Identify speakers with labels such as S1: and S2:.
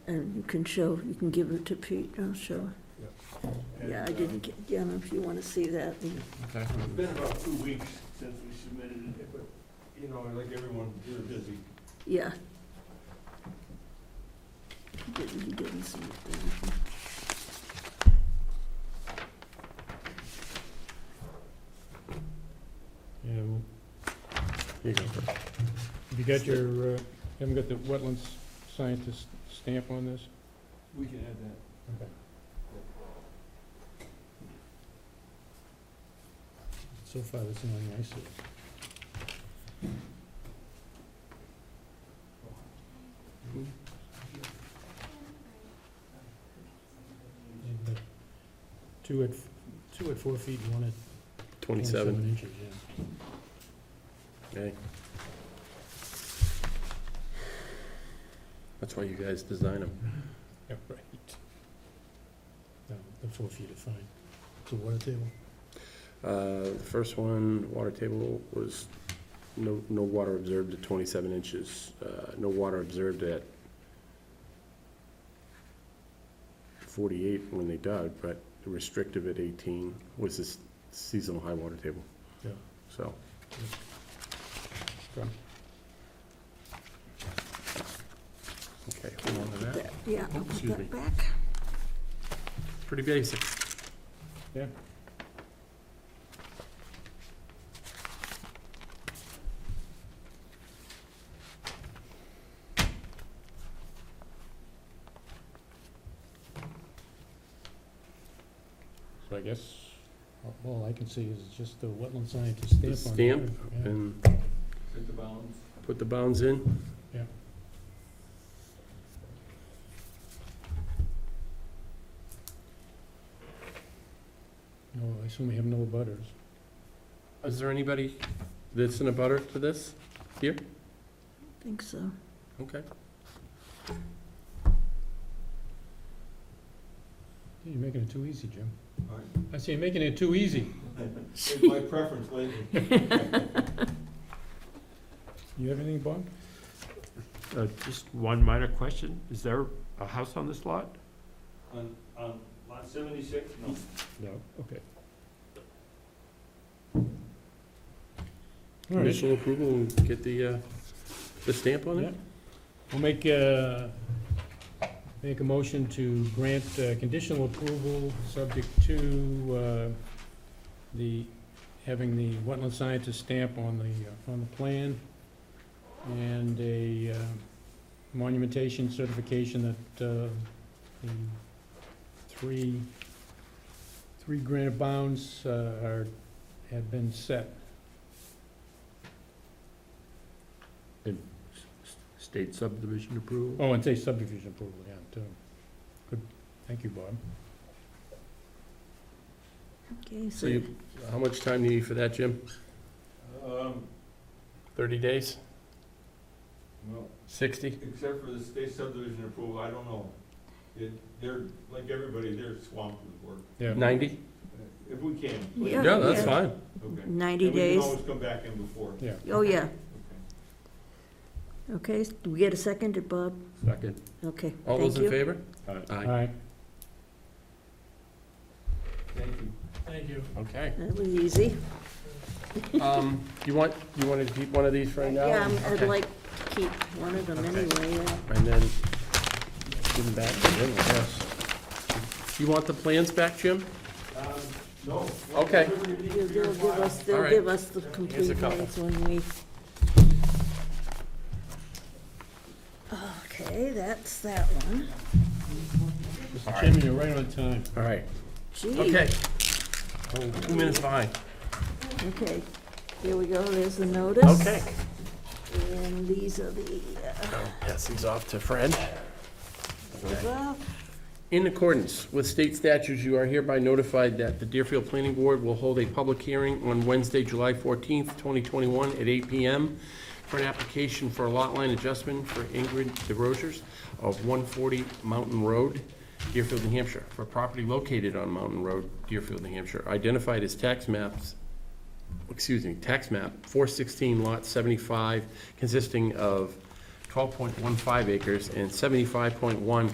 S1: And you can show, you can give it to Pete, I'll show. Yeah, I didn't get, yeah, if you want to see that.
S2: Okay.
S3: It's um, been about two weeks since we submitted it, but, you know, like everyone, we're busy.
S1: Yeah. He didn't, he didn't see it then.
S4: Yeah, well,
S2: You go first.
S4: Have you got your, uh, haven't got the wetlands scientist stamp on this?
S3: We can add that.
S4: So far, that's the only I see. You've got Two at, f- two at four feet, and one at
S2: Twenty-seven,
S4: inches, yeah.
S2: okay. That's why you guys design them.
S4: Yeah, right. No, the four feet are fine. It's a water table.
S2: Uh, The first one, water table, was no, no water observed at 27 inches, uh, no water observed at 48 when they dug, but restrictive at 18 was this seasonal high water table.
S4: Yeah.
S2: So, okay, hold on to that.
S1: That- Yeah, I'll
S2: Oops,
S1: put
S2: excuse me.
S1: that back.
S2: Pretty basic.
S4: So I guess, all I can see is just the wetland scientist stamp on
S2: The
S4: there.
S2: stamp
S4: yeah.
S2: and
S3: Hit the bounds.
S2: put the bounds in.
S4: No, I assume we have no butters.
S2: Is there anybody that's in a butter to this?
S1: Think so.
S2: Okay.
S4: You're making it too easy, Jim.
S3: All right.
S4: I see, you're making it too easy.
S3: It's my preference lately.
S4: You have anything, Bob?
S5: Uh, Just one minor question. Is there a house on this lot?
S3: On, on lot seventy-six, no.
S5: No.
S4: Okay. All right,
S2: Initial approval and get the, uh, the stamp on
S4: yeah.
S2: it?
S4: We'll make, uh, make a motion to grant uh, conditional approval, subject to, uh, the, having the wetland scientist stamp on the, uh, on the plan, and a uh, monumentation certification that uh, the three, three granite bounds uh, are, have been set.
S5: State subdivision approval?
S4: Oh, and say subdivision approval, yeah, too. Good, thank you, Bob.
S1: Okay,
S2: So
S1: so,
S2: you, how much time do you need for that, Jim?
S3: Um,
S2: Thirty days?
S3: well,
S2: Sixty?
S3: except for the state subdivision approval, I don't know. It, they're, like everybody, they're swamped with work.
S4: Yeah.
S2: Ninety?
S3: If we can, please.
S1: Yeah,
S2: Yeah, that's
S1: yeah.
S2: fine.
S3: Okay. And
S1: 90
S3: we can
S1: days.
S3: always come back in before.
S4: Yeah,
S1: Oh, yeah.
S3: Okay.
S1: Okay, s- do we get a second, uh, Bob?
S5: Second.
S1: Okay,
S2: All those
S1: thank
S2: in
S1: you.
S2: favor?
S5: Aye.
S4: all
S2: Aye.
S4: right.
S3: Thank you.
S4: Thank you.
S2: Okay.
S1: That was easy.
S2: Um, you want, you wanted to keep one of these right now?
S1: Uh, Yeah, um, I'm- I'd
S2: Okay.
S1: like to keep one of them
S2: Okay.
S1: anyway. uh, yeah.
S2: And then give them back to Jim, I guess. You want the plans back, Jim?
S3: Um, no.
S2: Okay.
S3: Whatever you need
S1: They'll
S3: for your
S1: they'll give
S3: file.
S1: us, they'll
S2: right.
S1: give us the
S3: Here's a
S1: complete
S2: couple.
S1: minutes when we... Okay, that's that one.
S4: Mr. Chairman, you're right on time.
S2: All right.
S1: Gee.
S2: Okay. Oh, Two minutes behind.
S1: Okay, here we go, there's the notice.
S2: Okay.
S1: And these are the, uh,
S2: Pass these off to Fred.
S1: well,
S2: In accordance with state statutes, you are hereby notified that the Deerfield Planning Board will hold a public hearing on Wednesday, July 14th, 2021, at 8 PM for an application for a lot line adjustment for Ingrid DeRozers of 140 Mountain Road, Deerfield, New Hampshire, for property located on Mountain Road, Deerfield, New Hampshire, identified as tax maps, excuse me, tax map 416 Lot 75, consisting of 12.15 acres and 75.1